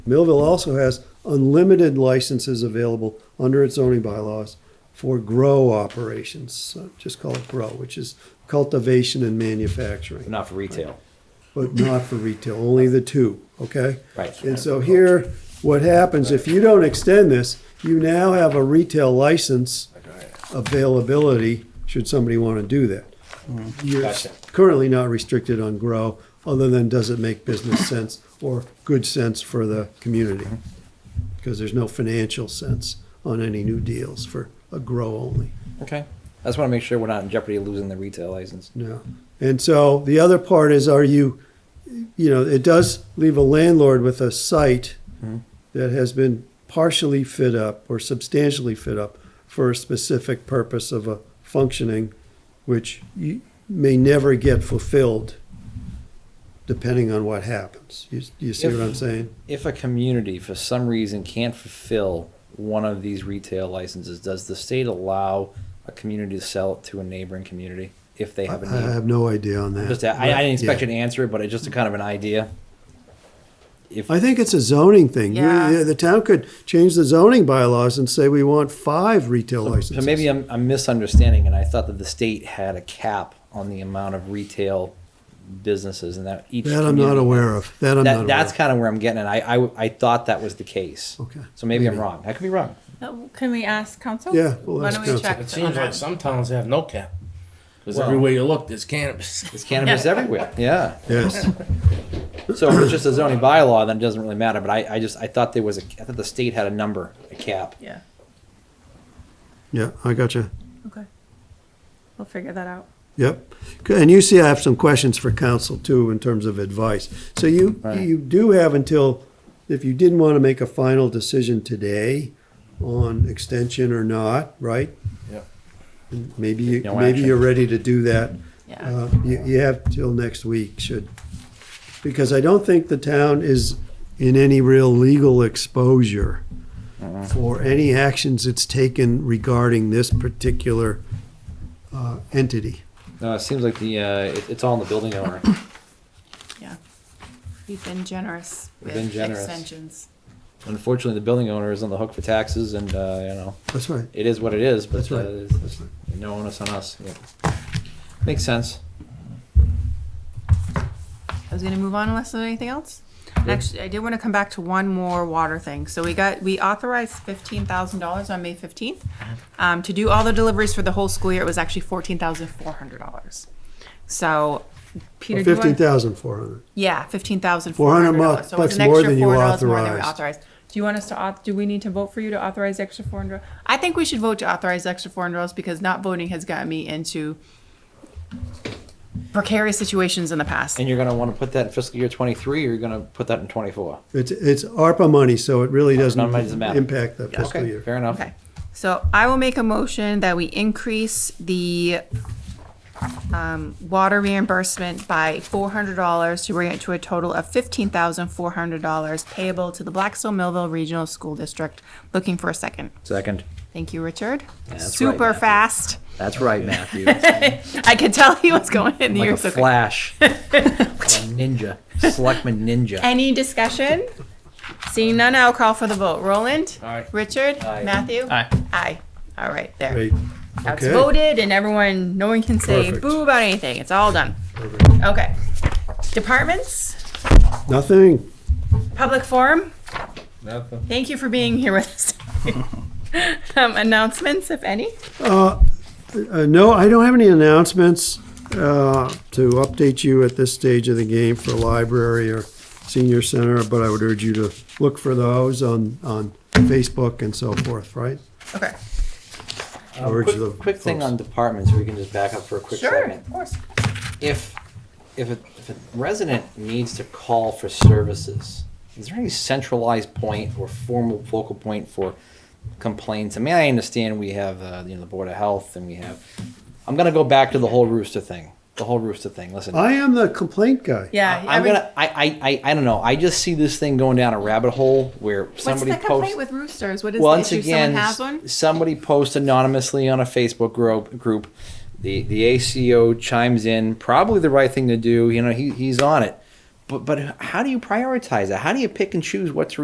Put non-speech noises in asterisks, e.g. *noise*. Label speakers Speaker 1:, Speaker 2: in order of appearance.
Speaker 1: Millville also has unlimited licenses available under its zoning bylaws for grow operations. So Just call it grow, which is cultivation and manufacturing,
Speaker 2: Not for retail.
Speaker 1: but not for retail, only the two, okay?
Speaker 2: Right.
Speaker 1: And so here, what happens, if you don't extend this, you now have a retail license availability, should somebody want to do that. You're
Speaker 2: Gotcha.
Speaker 1: currently not restricted on grow, other than does it make business sense or good sense for the community? Because there's no financial sense on any new deals for a grow only,
Speaker 2: Okay. I just want to make sure we're not in jeopardy of losing the retail license.
Speaker 1: no. And so the other part is, are you, you know, it does leave a landlord with a site
Speaker 2: Mm-hmm.
Speaker 1: that has been partially fit up or substantially fit up for a specific purpose of a functioning, which you may never get fulfilled depending on what happens. You, you see what I'm saying?
Speaker 2: If a community, for some reason, can't fulfill one of these retail licenses, does the state allow a community to sell it to a neighboring community if they
Speaker 1: I
Speaker 2: have a
Speaker 1: I
Speaker 2: need?
Speaker 1: have no idea on that.
Speaker 2: Just, a- I, I didn't expect
Speaker 1: Uh, Yeah.
Speaker 2: you to answer it, but it's just a kind of an idea. If
Speaker 1: I think it's a zoning thing. You-
Speaker 3: Yeah.
Speaker 1: The town could change the zoning bylaws and say we want five retail licenses.
Speaker 2: So maybe I'm, I'm misunderstanding, and I thought that the state had a cap on the amount of retail businesses, and that each.
Speaker 1: That I'm not
Speaker 2: community-
Speaker 1: aware of. That I'm not aware
Speaker 2: That, that's
Speaker 1: of.
Speaker 2: kind of where I'm getting it. I, I, I thought that was the case.
Speaker 1: Okay.
Speaker 2: So maybe I'm
Speaker 1: Maybe.
Speaker 2: wrong. I could be wrong.
Speaker 3: Uh, Can we ask council?
Speaker 1: Yeah, we'll ask
Speaker 3: Why don't
Speaker 1: council.
Speaker 3: we check?
Speaker 1: It
Speaker 4: It
Speaker 3: on
Speaker 4: seems
Speaker 3: that?
Speaker 4: like some towns have no cap. Because
Speaker 2: Well-
Speaker 4: everywhere you look, there's cannabis.
Speaker 2: It's cannabis everywhere. Yeah.
Speaker 1: Yes.
Speaker 2: So if it's just a zoning bylaw, then it doesn't really matter. But I, I just, I thought there was a, I thought the state had a number, a cap.
Speaker 3: Yeah,
Speaker 1: Yeah, I gotcha.
Speaker 3: okay. We'll figure that out.
Speaker 1: Yep. And you see, I have some questions for council too in terms of advice. So you,
Speaker 2: Right.
Speaker 1: you do have until, if you didn't want to make a final decision today on extension or not, right?
Speaker 4: Yep.
Speaker 1: Maybe, you
Speaker 2: No
Speaker 1: maybe
Speaker 2: action.
Speaker 1: you're ready to do that.
Speaker 3: Yeah,
Speaker 1: Uh, You, you have till next week, should, because I don't think the town is in any real legal exposure
Speaker 2: Uh-huh.
Speaker 1: for any actions it's taken regarding this particular uh, entity.
Speaker 2: No, it seems like the, uh, it, it's all in the building owner.
Speaker 3: yeah. We've been generous
Speaker 2: We've been
Speaker 3: with
Speaker 2: generous.
Speaker 3: extensions.
Speaker 2: Unfortunately, the building owner is on the hook for taxes and, uh, you know,
Speaker 1: That's right.
Speaker 2: it is what it is, but.
Speaker 1: That's right.
Speaker 2: uh, it's-
Speaker 1: That's right.
Speaker 2: No onus on us. Yep. Makes sense.
Speaker 3: I was gonna move on unless there's anything else. Actually, I did wanna come back to one more water thing. So we got, we authorized fifteen thousand dollars on May fifteenth. Um, to do all the deliveries for the whole school year, it was actually fourteen thousand four hundred dollars. So, Peter, do you want?
Speaker 1: Fifteen thousand four hundred.
Speaker 3: Yeah, fifteen thousand four hundred
Speaker 1: 400
Speaker 3: dollars. So
Speaker 1: bucks
Speaker 3: it's an
Speaker 1: more
Speaker 3: extra
Speaker 1: than you
Speaker 3: four dollars more than we
Speaker 1: authorized.
Speaker 3: authorized. Do you want us to, auth- do we need to vote for you to authorize the extra four hundred? I think we should vote to authorize the extra four hundred dollars because not voting has gotten me into precarious situations in the past.
Speaker 2: And you're gonna wanna put that in fiscal year twenty-three, or you're gonna put that in twenty-four?
Speaker 1: It's, it's ARPA money, so it really doesn't
Speaker 2: None of it doesn't matter.
Speaker 1: impact the fiscal
Speaker 2: Okay,
Speaker 1: year.
Speaker 2: fair enough.
Speaker 3: Okay, so I will make a motion that we increase the um, water reimbursement by four hundred dollars to bring it to a total of fifteen thousand four hundred dollars payable to the Blackstone Millville Regional School District. Looking for a second.
Speaker 2: Second.
Speaker 3: Thank you, Richard.
Speaker 2: That's
Speaker 3: Super
Speaker 2: right, Matthew.
Speaker 3: fast.
Speaker 2: That's right, Matthew.
Speaker 3: I could tell he was going in the
Speaker 2: Like a
Speaker 3: ears. Okay.
Speaker 2: flash. Like a Ninja, selectman ninja.
Speaker 3: Any discussion? Seeing none, I'll call for the vote. Roland?
Speaker 4: Aye.
Speaker 3: Richard?
Speaker 2: Aye.
Speaker 3: Matthew?
Speaker 4: Aye.
Speaker 3: Aye. All right, there.
Speaker 1: Great.
Speaker 3: That's
Speaker 1: Okay.
Speaker 3: voted and everyone, no one can say
Speaker 1: Perfect.
Speaker 3: boo about anything. It's all done. Okay. Departments?
Speaker 1: Nothing.
Speaker 3: Public forum?
Speaker 4: Nothing.
Speaker 3: Thank you for being here with us. *laughs* Um, Announcements, if any?
Speaker 1: Uh, no, I don't have any announcements, uh, to update you at this stage of the game for library or senior center, but I would urge you to look for those on, on Facebook and so forth, right?
Speaker 3: Okay.
Speaker 1: I urge
Speaker 2: Uh, Quick-
Speaker 1: the
Speaker 2: Quick thing
Speaker 1: folks.
Speaker 2: on departments, we can just back up for a quick
Speaker 3: Sure,
Speaker 2: second.
Speaker 3: of course.
Speaker 2: If, if a, if a resident needs to call for services, is there any centralized point or formal focal point for complaints? I mean, I understand we have, uh, you know, the Board of Health and we have, I'm gonna go back to the whole rooster thing, the whole rooster thing, listen.
Speaker 1: I am the complaint guy.
Speaker 3: Uh, Yeah.
Speaker 2: I- I'm
Speaker 3: every-
Speaker 2: gonna. I, I. I. I don't know. I just see this thing going down a rabbit hole where
Speaker 3: What's
Speaker 2: somebody
Speaker 3: the complaint
Speaker 2: posts.
Speaker 3: with roosters? What is the
Speaker 2: once
Speaker 3: issue?
Speaker 2: again,
Speaker 3: Someone has one?
Speaker 2: somebody posts anonymously on a Facebook group. Group. The the ACO chimes in. Probably the right thing to do. You know, he he's on it. But but how do you prioritize that? How do you pick and choose what to